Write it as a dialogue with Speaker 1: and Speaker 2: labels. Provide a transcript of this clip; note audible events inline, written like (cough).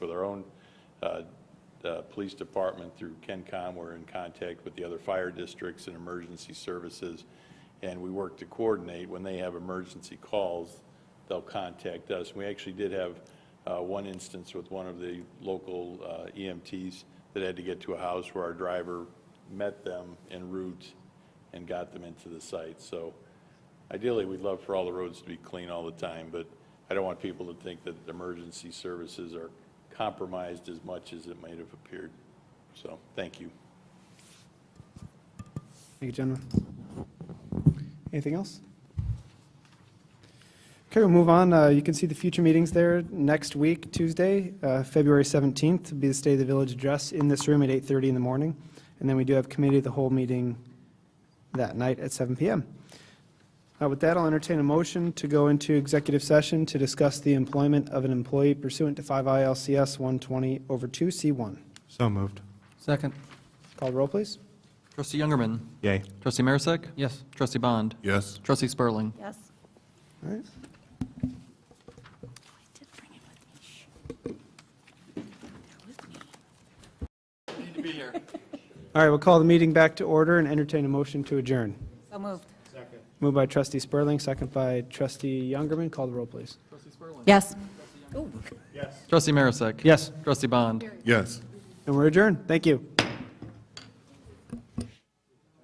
Speaker 1: with our own uh, uh, police department through KenCom. We're in contact with the other fire districts and emergency services, and we work to coordinate. When they have emergency calls, they'll contact us. We actually did have uh, one instance with one of the local uh, EMTs that had to get to a house where our driver met them en route and got them into the site. So ideally, we'd love for all the roads to be clean all the time, but I don't want people to think that emergency services are compromised as much as it might have appeared. So, thank you.
Speaker 2: Thank you, gentlemen. Anything else? Okay, we'll move on. Uh, You can see the future meetings there next week, Tuesday, uh, February 17th, will be the State of the Village Address in this room at 8:30 in the morning. And then we do have Committee of the Whole meeting that night at 7 PM. Uh, With that, I'll entertain a motion to go into executive session to discuss the employment of an employee pursuant to 5 ILCS 120 over 2 C1.
Speaker 3: So moved.
Speaker 4: Second.
Speaker 2: Call roll, please.
Speaker 4: Trustee Youngerman.
Speaker 3: Yay.
Speaker 4: Trustee Marisak. Yes. Trustee Bond.
Speaker 3: Yes.
Speaker 4: Trustee Spurling.
Speaker 5: Yes.
Speaker 2: All right.
Speaker 5: I Oh, did bring it with me. Shh. Bear with me.
Speaker 4: Need to be
Speaker 5: (laughs)
Speaker 4: here.
Speaker 2: All right, we'll call the meeting back to order and entertain a motion to adjourn.
Speaker 5: So moved.
Speaker 2: Moved by trustee Spurling, second by trustee Youngerman. Call the roll, please.
Speaker 5: Yes.
Speaker 4: Trustee Marisak.
Speaker 2: Yes.
Speaker 4: Trustee Bond.
Speaker 3: Yes.
Speaker 2: And we're adjourned. Thank you.